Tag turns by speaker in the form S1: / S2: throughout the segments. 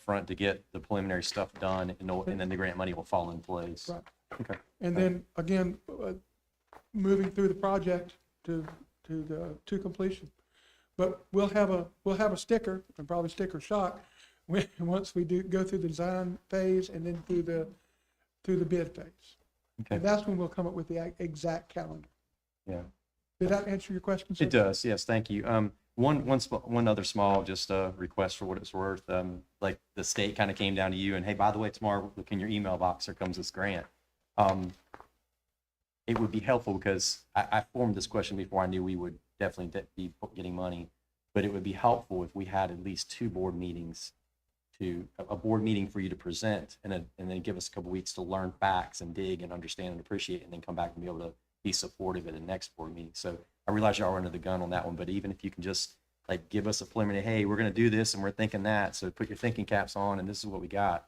S1: upfront to get the preliminary stuff done and know- and then the grant money will fall in place.
S2: Right.
S1: Okay.
S2: And then again, uh, moving through the project to, to the, to completion. But we'll have a, we'll have a sticker and probably sticker shock when, once we do go through the design phase and then through the, through the bid phase.
S1: Okay.
S2: And that's when we'll come up with the ac- exact calendar.
S1: Yeah.
S2: Did that answer your question? sir?
S1: It does, yes, thank you. Um, one, one, sm- one other small, just uh request for what it's worth. Um, like the state kind of came down to you and hey, by the way, tomorrow, look in your email box, here comes this grant. Um, it would be helpful because I, I formed this question before I knew we would definitely de- be getting money. But it would be helpful if we had at least two board meetings to, a, a board meeting for you to present and then, and then give us a couple weeks to learn facts and dig and understand and appreciate and then come back and be able to be supportive at the next board meeting. So I realize you are under the gun on that one, but even if you can just like give us a preliminary, hey, we're gonna do this and we're thinking that, so put your thinking caps on and this is what we got.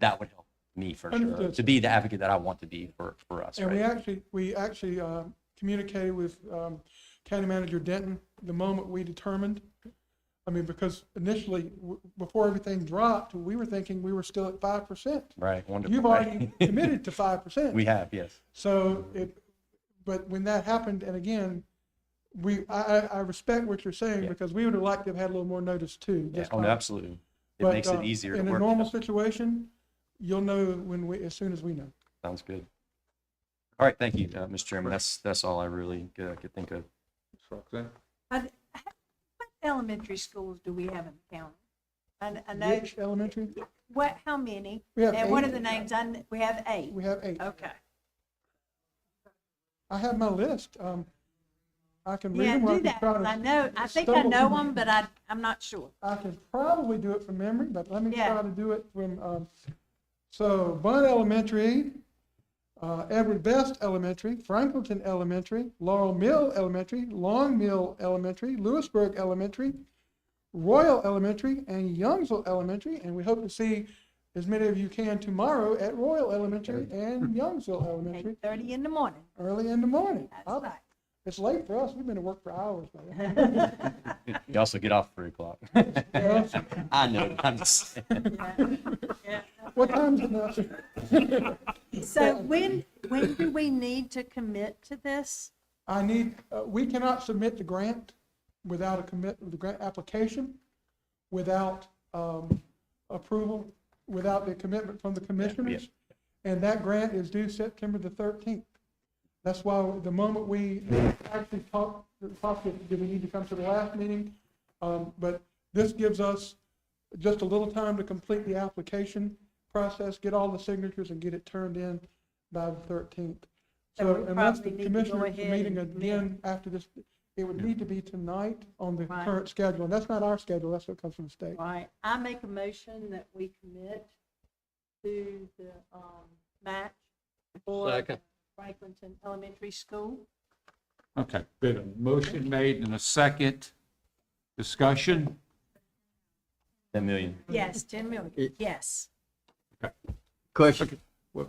S1: That would help me for sure,
S2: Understood,
S1: to be the advocate that I want to be for, for us,
S2: And we
S1: right?
S2: actually, we actually um, communicated with um, County Manager Denton the moment we determined. I mean, because initially, w- before everything dropped, we were thinking we were still at five percent.
S1: Right, wonderful.
S2: You've
S1: right?
S2: already committed to five percent.
S1: We have, yes.
S2: So it, but when that happened, and again, we, I, I, I respect what you're saying
S1: Yeah.
S2: because we would have liked to have had a little more notice too.
S1: Yeah,
S2: just
S1: Oh, no,
S2: by-
S1: absolutely. It
S2: but,
S1: makes
S2: uh,
S1: it easier to
S2: In a
S1: work.
S2: normal situation, you'll know when we, as soon as we know.
S1: Sounds good. All right, thank you, uh, Mr. Chairman. That's, that's all I really uh, could think of.
S3: Roxanne?
S4: Are th- What elementary schools do we have in the county? I, I know,
S2: Which elementary?
S4: what, how many?
S2: We have
S4: And what
S2: eight.
S4: are the names? I, kn- we have eight.
S2: We have eight.
S4: Okay.
S2: I have my list. Um, I can read
S4: Yeah,
S2: them. or I
S4: do
S2: can
S4: that.
S2: try to-
S4: I know, I think I
S2: stumble Mm-hmm.
S4: know
S2: through
S4: them, but I, I'm not sure.
S2: I can probably do it from memory, but let me
S4: Yeah.
S2: try to do it from, um, so Bud Elementary, uh, Edward Best Elementary, Franklinton Elementary, Laurel Mill Elementary, Long Mill Elementary, Lewisburg Elementary, Royal Elementary, and Youngsville Elementary, and we hope to see as many of you can tomorrow at Royal Elementary and Youngsville Elementary,
S4: Eight thirty in the morning.
S2: early in the morning. I'll-
S4: That's
S2: It's late for us. We've been to work for hours. by then.
S4: right.
S1: You also get off at three o'clock. I know, I'm just,
S4: Yeah, yeah.
S2: What time's it now?
S4: So when, when do we need to commit to this?
S2: I need, uh, we cannot submit the grant without a commit, the grant application, without um, approval, without the commitment from the commissioners. And that grant is due September the 13th. That's why the moment we actually talked, talked, did we need to come to the last meeting? Um, But this gives us just a little time to complete the application process, get all the signatures and get it turned in by the 13th.
S4: So
S2: So
S4: we
S2: unless the
S4: probably need to go
S2: commissioners are
S4: ahead
S2: meeting
S4: and-
S2: again after this, it would need to be tonight on the
S4: Right.
S2: current schedule. And that's not our schedule, that's what comes from the state.
S4: Right, I make a motion that we commit to the um, match for
S3: Second.
S4: Franklinton Elementary School.
S3: Okay, been a motion made and a second discussion.
S1: ten million.
S4: Yes, 10 million,
S5: It-
S4: yes.
S5: Question,
S3: Well,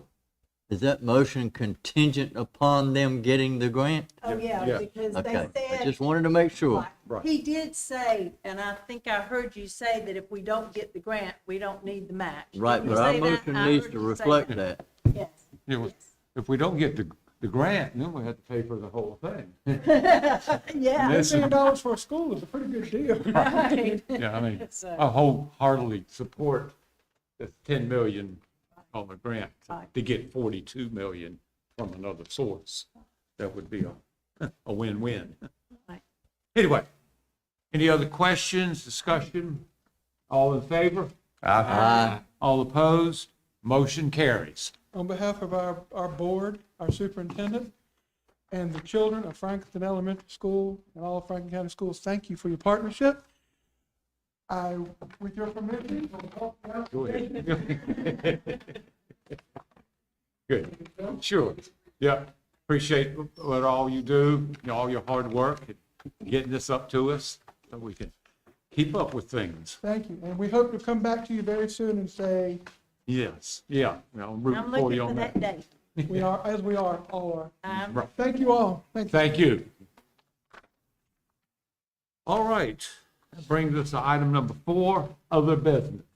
S5: is that motion contingent upon them getting the grant?
S4: Oh, yeah,
S3: yeah.
S4: because
S5: Okay,
S4: they
S5: I
S4: said,
S5: just wanted to make sure.
S4: Right. he did say, and I think I heard you say that if we don't get the grant, we don't need the match. Did
S5: Right,
S4: you
S5: but our
S4: say that?
S5: motion
S4: I
S5: needs
S4: heard
S5: to
S4: you say
S5: reflect
S4: that.
S5: that.
S4: Yes,
S3: you know, If we don't get the, the grant, then we have to pay for the whole thing.
S4: yeah,
S3: This is-
S2: Fifteen dollars for a school is a pretty good deal. uh,
S4: right.
S3: Yeah, I mean,
S4: So-
S3: I wholeheartedly support the ten million on the grant to get forty-two million from another source. That would be a, a win-win.
S4: Right.
S3: Anyway, any other questions, discussion? All in favor?
S1: Ah,
S5: Aye.
S3: All opposed? Motion carries.
S2: On behalf of our, our board, our superintendent, and the children of Franklin Elementary School and all of Franklin County Schools, thank you for your partnership. I, with your permission, will walk down.
S3: Go ahead. Good, sure. Yeah, appreciate what all you do, you know, all your hard work, and getting this up to us, so we can keep up with things.
S2: Thank you, and we hope to come back to you very soon and say,
S3: Yes, yeah, you know, I'm rooting
S4: I'm
S3: for
S4: looking
S3: you
S4: for
S3: on
S4: that
S3: that.
S4: day.
S2: we are, as we are, all are.
S4: I'm
S2: Thank you all. Thank you.
S3: Thank you. All right, that brings us to item number four, other business.